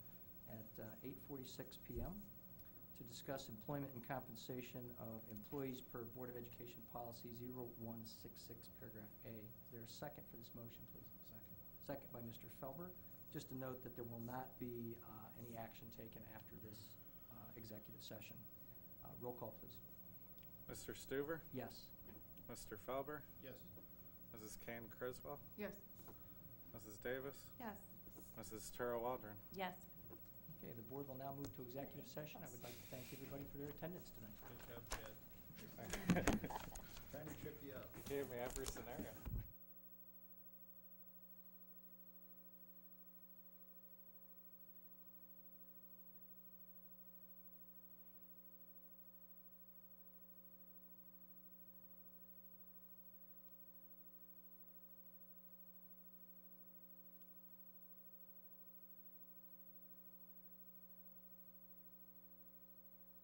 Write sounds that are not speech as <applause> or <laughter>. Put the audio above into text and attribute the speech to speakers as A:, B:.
A: uh, forty-six PM to discuss employment and compensation of employees per Board of Education Policy 0166, paragraph A. Is there a second for this motion, please?
B: Second.
A: Second by Mr. Felber. Just to note that there will not be uh, any action taken after this uh, executive session. Uh, Roll call, please.
C: Mr. Stuver,
A: Yes.
C: Mr. Felber,
B: Yes.
C: Mrs. Kane Criswell,
D: Yes.
C: Mrs. Davis,
D: Yes.
C: Mrs. Tara Waldron. <laughs>
D: Yes.
A: Okay, the board will now move to executive session. I would like to thank everybody for their attendance tonight.
B: Good job, Chad. Trying to trip you up.
C: You gave me every scenario.